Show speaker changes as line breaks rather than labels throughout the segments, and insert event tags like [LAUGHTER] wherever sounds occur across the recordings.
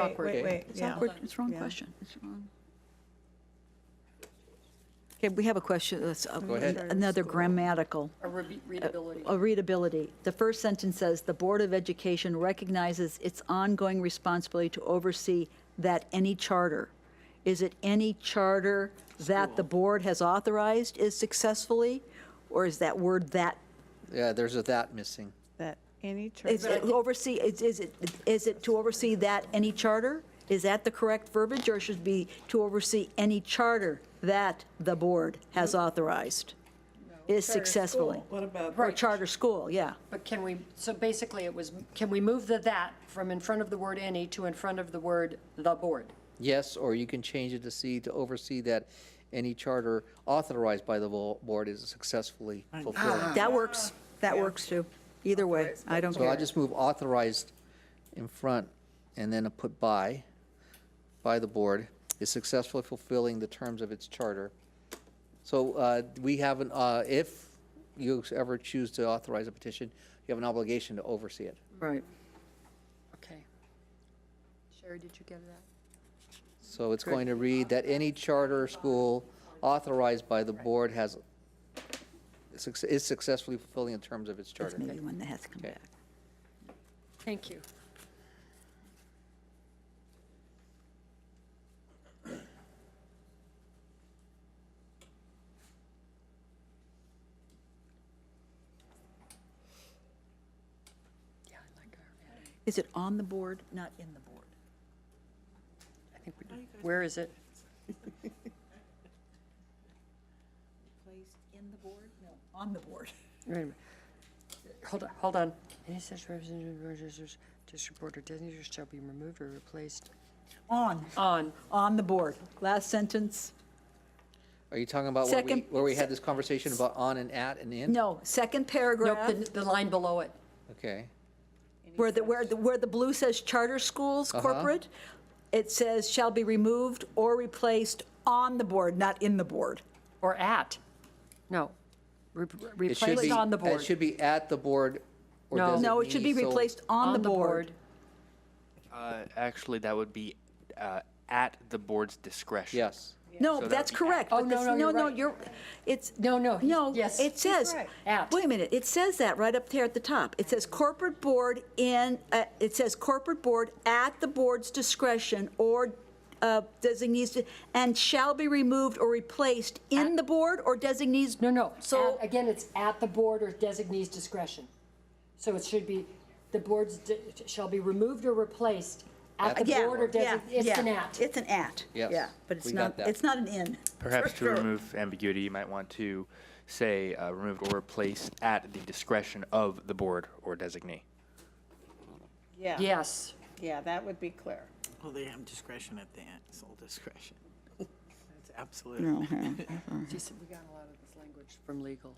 awkward
Wait,
day.
wait,
It's
yeah.
awkward, it's wrong
Yeah.
question, it's wrong. Okay, we have a question, that's, uh,
Go ahead.
another grammatical,
Or re- readability.
a readability. The first sentence says, "The Board of Education recognizes its ongoing responsibility to oversee that any charter." Is it any charter that the board has authorized is successfully? Or is that word "that"
Yeah, there's a that missing.
That any church,
Is it oversee, is is it, is it to oversee that any charter? Is that the correct verbiage, or should it be to oversee any charter that the board has
Mm-hmm.
authorized? Is successfully?
What about?
Or charter school, yeah.
But can we, so basically it was, can we move the "that" from in front of the word "any" to in front of the word "the board"?
Yes, or you can change it to see, to oversee that any charter authorized by the vo- board is successfully fulfilled.
That works, that works too. Either way, I don't
So I'll
care.
just move authorized in front and then I'll put by, by the board, is successfully fulfilling the terms of its charter. So uh, we have an, uh, if you ever choose to authorize a petition, you have an obligation to oversee it.
Right.
Okay. Sherry, did you get that?
So it's going to read that any charter school authorized by the board has, suc- is successfully fulfilling the terms of its
That's
charter.
maybe one that has to come
Okay.
back.
Thank you. Yeah, I like our,
Is it on the board, not in the board?
I think we did. Where is it?
Placed in the board? No, on the board. [LAUGHS]
Wait a minute. Hold on, hold on. Any such representative, registered district board or designated shall be removed or replaced
On,
on.
on the board. Last sentence.
Are you talking about where we,
Second-
where we had this conversation about on and at and in?
No, second paragraph.
Nope, the, the line below it.
Okay,
Where the, where the, where the blue says charter schools corporate, it says shall be removed or replaced on the board, not in the board.
Or at. No. Re-
it should
Replaced
be.
on the board.
It should be at the board or
No.
designee.
No, it should be
Oh. so-
replaced on the board.
Uh, actually, that would be uh, at the board's discretion.
Yes.
No,
So that
that's
would be at.
correct.
Oh,
but
no,
this-
no, you're
No,
right.
you're, it's.
No, no, he's-
No,
yes.
it says,
right.
At.
wait a minute, it says that right up there at the top. It says corporate board in, uh, it says corporate board at the board's discretion or uh, designees, and shall be removed or replaced in the board or designees.
No, no.
So.
So again, it's at the board or designee's discretion. So it should be, the boards d- shall be removed or replaced at the
Yeah,
board or
yeah,
designee. It's
yeah.
an at.
It's an at.
Yes,
Yeah, but it's
we got
not,
that.
it's not an in.
Perhaps
[LAUGHS]
to remove ambiguity, you might want to say uh, removed or replaced at the discretion of the board or designee.
yeah,
Yes.
yeah, that would be clear.
Well, they have discretion at the end, sole discretion. [LAUGHS] That's absolute.
Uh-huh.
She said we got a lot of this language from legal.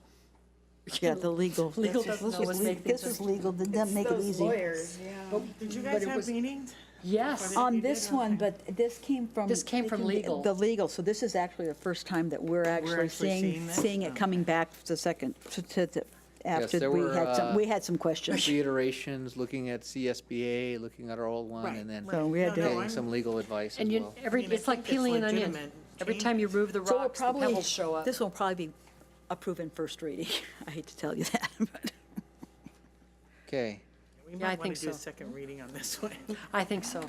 Yeah, the legal.
Legal doesn't always make
This
things.
is legal, did that make it easy?
Lawyers, yeah.
Did you guys have meetings?
Yes.
On this one, but this came from.
This came from legal.
The legal, so this is actually the first time that we're actually
actually
seeing,
seeing this?
seeing it coming back the second, to- to- to- after
there
we
were,
had some,
uh,
we had some questions.
Reiterations, looking at CSBA, looking at our old one, and then
So we had to-
getting some legal advice as
And you,
well.
every,
I mean, I
it's like
think it's
peeling an onion.
legitimate
Every
change.
time you move the
So we'll
rocks, the
probably
pebbles show up.
This will probably be approved in first reading. [LAUGHS] I hate to tell you that, but.
Okay.
We
I
might want
think
to do a
so.
second reading on this one.
I think so.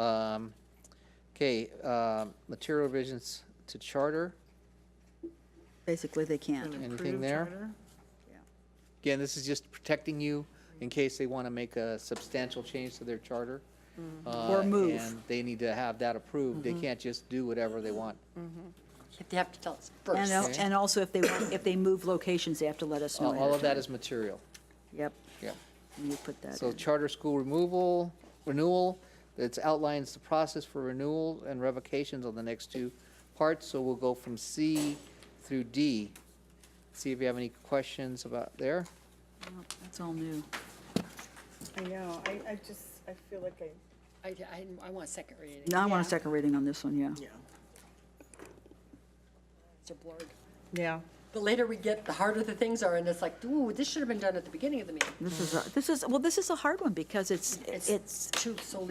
Um, Okay, um, material revisions to charter,
Basically, they can't.
anything
[LAUGHS]
there? Again, this is just protecting you in case they want to make a substantial change to their charter. uh,
Or move. Mm-hmm.
And they need to have that approved. They can't just do whatever they want.
They have to tell us
And,
first.
al- and also if they, want- if they move locations, they have to let us know.
Oh, All all
ahead
of that is material.
time. Yep,
Yeah.
you put that
So
in.
charter school removal, renewal, it outlines the process for renewal and revocations on the next two parts. So we'll go from C through D. See if you have any questions about there.
That's all new.
I know, I, I just, I feel like I,
I, I, I want a second reading.
Now I want a second reading on this one, yeah.
Yeah.
It's a blurred.
yeah.
The later we get, the harder the things are, and it's like, ooh, this should have been done at the beginning of the meeting.
This is, a- this is, well, this is a hard one because it's, it's
Too, so